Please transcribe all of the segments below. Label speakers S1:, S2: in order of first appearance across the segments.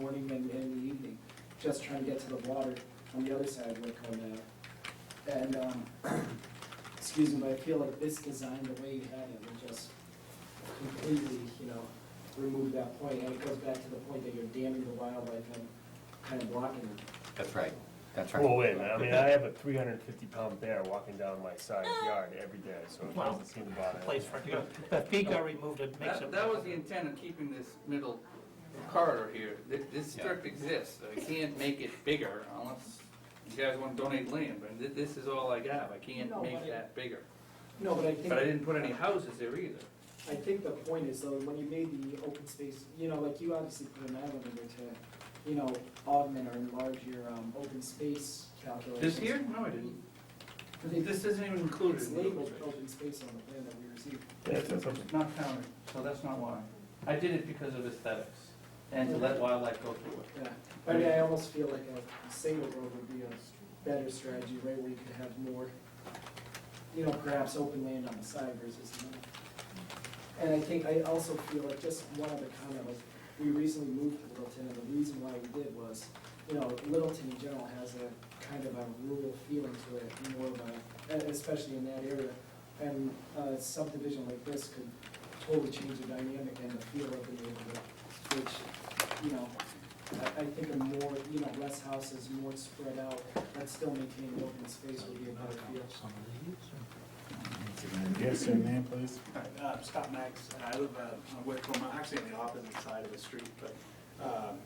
S1: morning and, and the evening, just trying to get to the water on the other side of Woodcomb now. And, um, excuse me, but I feel like this design, the way you had it, would just completely, you know, remove that point, and it goes back to the point that you're damming the wildlife and kind of blocking it.
S2: That's right, that's right.
S3: Well, wait a minute, I mean, I have a three hundred and fifty pound bear walking down my side yard every day, so it
S4: Well,
S3: doesn't seem to bother.
S4: place for it to go. The feet are removed, it makes
S5: That,
S4: it.
S5: that was the intent of keeping this middle corridor here. This, this
S2: Yeah.
S5: strip exists, so I can't make it bigger unless you guys wanna donate land, but thi- this is all I got. I can't
S1: No, but
S5: make
S1: it-
S5: that bigger.
S1: No, but I think.
S5: But I didn't put any houses there either.
S1: I think the point is though, when you made the open space, you know, like you obviously put an island in there to, you know, augment or enlarge your, um, open space calculations.
S5: This here? No, I didn't.
S1: I think
S5: This isn't even included
S1: It's
S5: in the
S1: labeled
S5: open space.
S1: open space on the plan that we received.
S3: Yeah, that's what-
S5: Not counted, so that's not why. I did it because of aesthetics
S1: and to let
S5: wildlife go through it.
S1: Yeah, I mean, I almost feel like a single road would be a better strategy, right, where you could have more, you know, perhaps open land on the side versus not. And I think, I also feel like, just one other comment, like, we recently moved to Littleton, and the reason why we did was, you know, Littleton in general has a kind of a rural feeling to it, more of a, and especially in that area. And a subdivision like this could totally change the dynamic and the feel of the neighborhood, which, you know, I, I think a more, you know, less houses, more spread out, but still maintaining open space would be a better feel.
S6: Yes, sir, name, please.
S7: Uh, Scott Max, and I live uh, on Whitcomb, actually on the opposite side of the street, but um,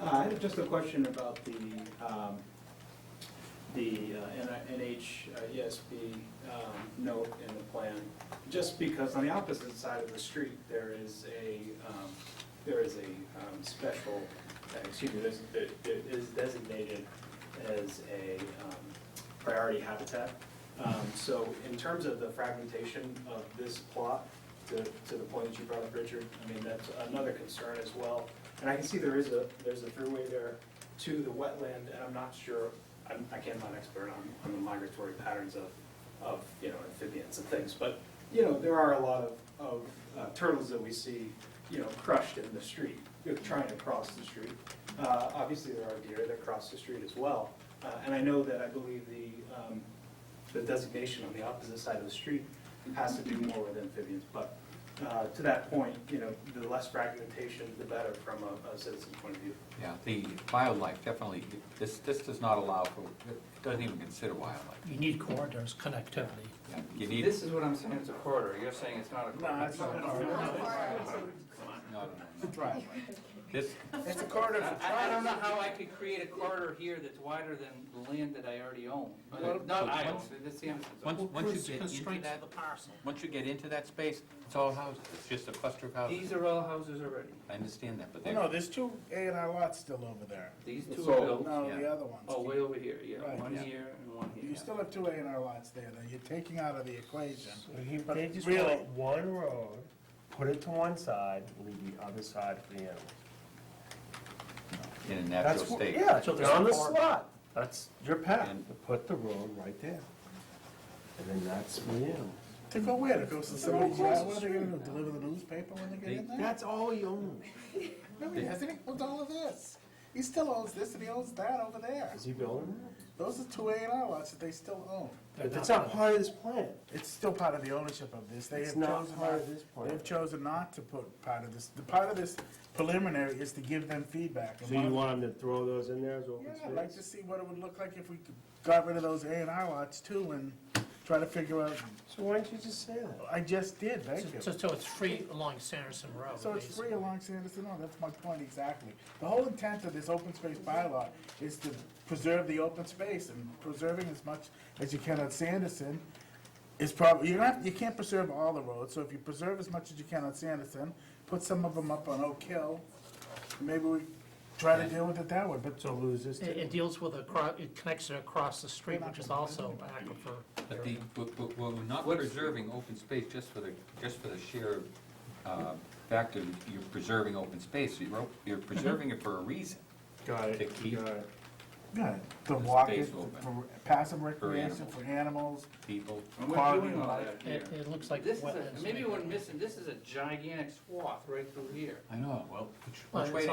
S7: uh, I had just a question about the, um, the uh, N- NH uh, ESB um, note in the plan. Just because on the opposite side of the street, there is a, um, there is a um, special, uh, excuse me, there's- there there is designated as a um, priority habitat. Um, So in terms of the fragmentation of this plot, to, to the point that you brought up, Richard, I mean, that's another concern as well. And I can see there is a, there's a throughway there to the wetland, and I'm not sure, I'm, I can't, I'm not an expert on, on the migratory patterns of, of, you know, amphibians and things, but, you know, there are a lot of, of uh, turtles that we see, you know, crushed in the street, you know, trying to cross the street. Uh, obviously, there are deer that cross the street as well, uh, and I know that I believe the, um, the designation on the opposite side of the street has to do more with amphibians, but uh, to that point, you know, the less fragmentation, the better from a a citizen point of view.
S2: Yeah, the wildlife, definitely, this, this does not allow for, it doesn't even consider wildlife.
S4: You need corridors, connectivity.
S2: Yeah, You need,
S5: This is what I'm saying, it's a corridor. You're saying it's not a corridor.
S7: No, it's not a
S2: no, no, no. This,
S7: It's a corridor
S5: I, I don't know how I could create a corridor here that's wider than the land that I already own. Not I own, that's the Andersons.
S2: once, once you get into
S4: Constraints
S2: that,
S4: of the parcel.
S2: once you get into that space, it's all houses, it's just a cluster of houses.
S5: These are all houses already.
S2: I understand that, but they,
S6: No, there's two A and R lots still over there.
S5: These two are
S2: So-
S5: built,
S6: No,
S2: Yeah.
S6: the other ones.
S5: oh, way over here, yeah,
S6: Right.
S5: one
S2: Yeah.
S5: here and one here.
S6: You still have two A and R lots there that you're taking out of the equation.
S3: He- They just
S6: Really?
S3: want one road, put it to one side, leave the other side for the animals.
S2: in a
S3: That's
S2: natural
S3: what-
S2: state.
S3: Yeah,
S4: So
S3: so
S4: there's
S3: on the
S4: four-
S3: slot, that's your path,
S2: And-
S3: You put the road right there. And then that's for the animals.
S6: To go where? To go to somebody's yard? What are they gonna do, deliver the newspaper when they
S2: They-
S6: get in there?
S3: That's all he owns.
S6: No, he hasn't, he owns all of this. He still owns this and he owns that over there.
S3: Is he building
S6: Those are two A and R lots that they still own.
S3: that? That's not part of this plan.
S6: It's still part of the ownership of this. They
S3: It's
S6: have
S3: not
S6: chosen
S3: part
S6: not,
S3: of this plan.
S6: they've chosen not to put part of this, the part of this preliminary is to give them feedback. And
S3: So
S6: one
S3: you
S6: of-
S3: want him to throw those in there as
S6: Yeah,
S3: open space?
S6: I'd like to see what it would look like if we could- got rid of those A and R lots too and try to figure out,
S3: So why don't you just say that?
S6: I just did, thank you.
S4: So, so it's free along Sanderson Road.
S6: So it's
S4: basically.
S6: free along Sanderson, no, that's my point exactly. The whole intent of this open space bylaw is to preserve the open space and preserving as much as you can on Sanderson is probably, you're not, you can't preserve all the roads, so if you preserve as much as you can on Sanderson, put some of them up on Oak Hill, maybe we try to deal with it that way, but
S3: So lose this
S4: It,
S3: too?
S4: it deals with a, cro- it connects it across the street, which is also aquifer.
S2: But the, but, but we're not preserving open space just for the, just for the sheer, uh, fact of you're preserving open space. You're, you're preserving it for a reason.
S3: Got
S2: To
S3: it,
S2: keep-
S3: got it.
S6: Yeah, the
S2: It's
S6: walk,
S2: space
S6: it-
S2: open.
S6: for passive recreation
S2: animals.
S6: for animals.
S2: People,
S5: And we're
S6: Quality
S5: doing
S6: of
S5: all
S6: life.
S5: that here.
S4: It, it looks like
S5: This is,
S4: wetlands.
S5: a- maybe we're missing, this is a gigantic swath right through here.
S2: I know, well, which-
S4: Well,
S2: which way
S4: it's